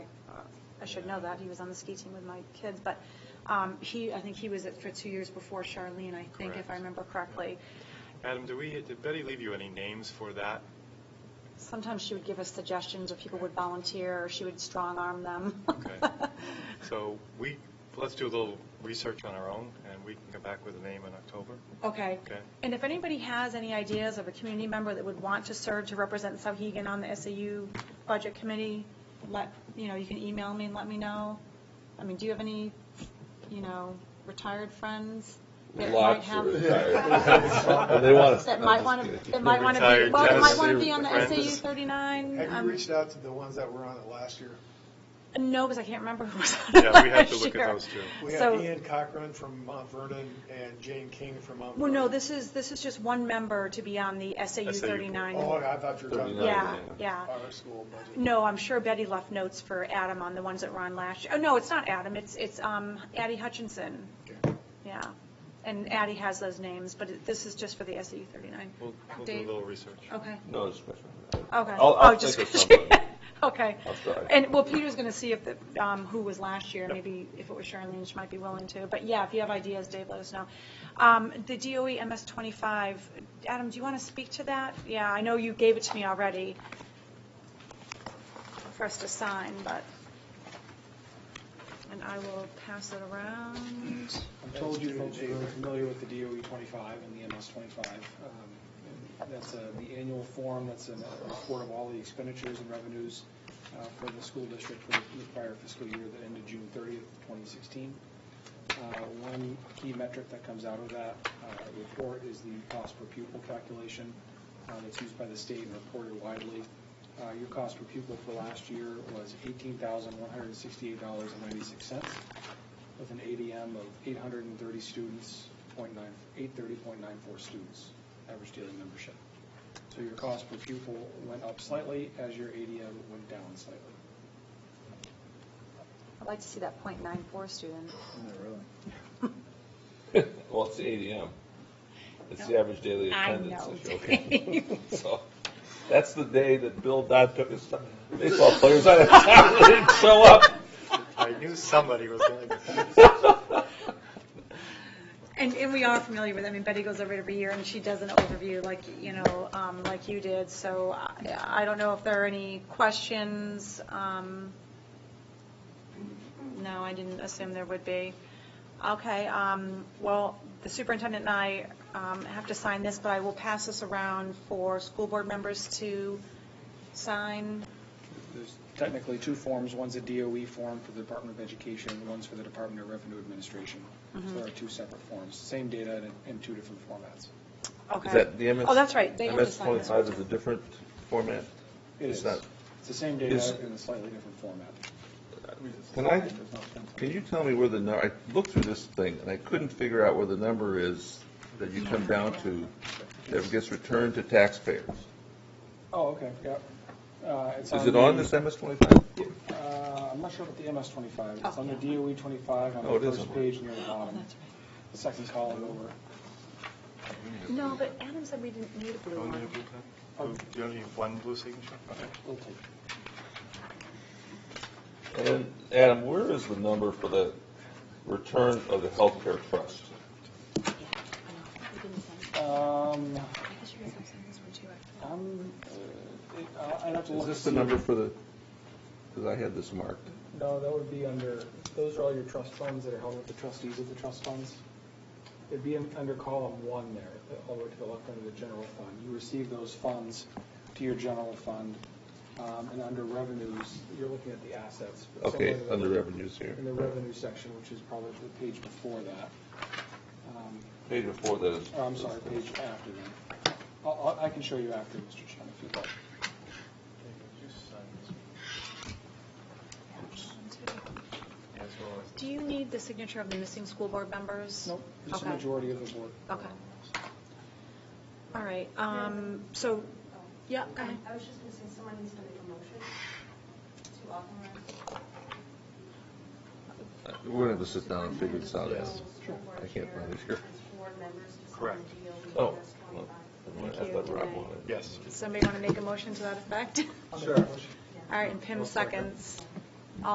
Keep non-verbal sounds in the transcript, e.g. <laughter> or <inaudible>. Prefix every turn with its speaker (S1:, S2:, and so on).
S1: I should know that, he was on the ski team with my kids, but um, he, I think he was it for two years before Charlene, I think, if
S2: Correct.
S1: I remember correctly.
S2: Adam, do we, did Betty leave you any names for that?
S1: Sometimes she would give us suggestions, or people would volunteer, or she would strong-arm them.
S2: Okay. So we, let's do a little research on our own, and we can come back with a name in October.
S1: <laughs> Okay.
S2: Okay.
S1: And if anybody has any ideas of a community member that would want to serve to represent Sauhegan on the SAU Budget Committee, let, you know, you can email me and let me know. I mean, do you have any, you know, retired friends? that might
S3: Lots
S1: have-
S3: of <laughs> retired.
S1: <laughs>
S3: And <laughs> they want us-
S1: That might want to, that might want to be,
S2: Retired
S1: well, that might want to
S2: Tennessee
S1: be on the
S2: friends.
S1: SAU 39.
S4: Have
S1: um,
S4: you reached out to the ones that were on it last year?
S1: No, because I can't remember who was on it
S2: Yeah, we have to
S1: last
S2: look at
S1: year.
S2: those two.
S4: We
S1: So-
S4: have Ian Cochran from Mount Vernon and Jane King from Mount
S1: Well,
S4: Vernon.
S1: no, this is, this is just one member to be on the SAU
S2: SAU.
S1: 39.
S4: Oh, I thought you were talking
S1: Yeah,
S4: about
S1: yeah.
S4: our school budget.
S1: No, I'm sure Betty left notes for Adam on the ones that were on last year. Oh, no, it's not Adam, it's, it's um, Addie Hutchinson.
S4: Okay.
S1: Yeah. And Addie has those names, but it- this is just for the SAU 39.
S2: We'll, we'll do a
S1: Dave?
S2: little research.
S1: Okay,
S3: No discussion.
S1: okay.
S3: I'll,
S1: Oh,
S3: I'll
S1: just-
S3: think of something.
S1: <laughs> Okay.
S3: I'll try.
S1: And, well, Peter's going to see if, the um, who was last year, maybe if it was Charlene, she might be willing to. But yeah, if you have ideas, Dave, let us know. Um, The DOE MS-25, Adam, do you want to speak to that? Yeah, I know you gave it to me already for us to sign, but, and I will pass it around.
S5: I've told you folks who are familiar with the DOE 25 and the MS 25. um, and That's uh, the annual form, that's a report of all the expenditures and revenues uh, for the school district for the prior fiscal year that ended June 30th, 2016. Uh, One key metric that comes out of that uh, report is the cost per pupil calculation uh, that's used by the state and reported widely. Uh, Your cost per pupil for last year was $18,168.96 with an ADM of 830 students, 0.9 830.94 students, average daily membership. So your cost per pupil went up slightly as your ADM went down slightly.
S1: I'd like to see that .94 student.
S3: <laughs> Well, it's the ADM. It's the
S1: No.
S3: average daily
S1: I
S3: attendance
S1: know, <laughs>
S3: issue, okay? <laughs> So, that's the day that Bill Dodd took his
S1: <laughs>
S3: baseball players out of town, they didn't show up.
S2: I knew somebody was going to.
S1: And, and we are familiar with, it. I mean, Betty goes over it every year, and she does an overview like, you know, um, like you did, so I, I don't know if there are any questions. um, No, I didn't assume there would be. Okay, um, well, the superintendent and I um, have to sign this, but I will pass this around for school board members to sign.
S5: There's technically two forms, one's a DOE form for the Department of Education, and one's for the Department of Revenue Administration. So there are two separate forms, same data in, in two different formats.
S1: Okay.
S3: Is that the MS?
S1: Oh, that's right, they have to
S3: MS
S1: sign this.
S3: twenty-five is a different format?
S5: It
S3: It's
S5: is,
S3: not-
S5: it's the same data
S3: Is-
S5: in a slightly different format.
S3: Can I, can you tell me where the, nu- I looked through this thing, and I couldn't figure out where the number is that you come down to that gets returned to taxpayers.
S5: Oh, okay, yep. Uh, it's
S3: Is it
S5: the-
S3: on this MS twenty-five?
S5: Uh, I'm not sure about the MS 25. It's
S1: Oh,
S5: on the
S1: yeah.
S5: DOE 25
S3: Oh,
S5: on
S3: it
S5: the
S3: is
S5: first
S3: on-
S5: page near the bottom,
S1: That's right.
S5: the second column over.
S1: No, but Adam said we didn't need a blue
S2: Do
S1: one.
S2: Oh, you only need one blue signature? Okay.
S5: We'll take it.
S3: And Adam, where is the number for the return of the healthcare trust?
S5: Um,
S1: I guess you guys have signed this one too, actually.
S5: I'm, uh, it- I- I'd have to look.
S3: Is this the
S5: to see.
S3: number for the, because I had this marked.
S5: No, that would be under, those are all your trust funds that are held with the trustees of the trust funds. It'd be in- under column one there, all the way to the left under the general fund. You receive those funds to your general fund, um, and under revenues, you're looking at the assets. but
S3: Okay,
S5: somewhere in the-
S3: under revenues here.
S5: in the revenue section, which is probably the page before that. Um,
S3: Page before that is.
S5: oh, I'm sorry, page after that. I'll- I'll- I can show you after, Mr. Chen, if you'd like.
S2: Yeah, as well as-
S1: Do you need the signature of the missing school board members?
S5: Nope, just a
S1: Okay.
S5: majority of the board.
S1: Okay, all right, um, so, yeah, go ahead.
S6: I was just gonna say, someone needs to make a motion to authorize.
S3: We're gonna have to sit down and figure this out, Adam.
S5: Sure.
S3: I can't find it here.
S6: Board members to sign
S2: Correct.
S6: the DOE
S3: Oh.
S6: MS
S3: well,
S6: 25.
S3: I thought Rob wanted it.
S2: Yes.
S1: Somebody want to make a motion to that effect?
S5: Sure.
S1: All right, and Pim seconds.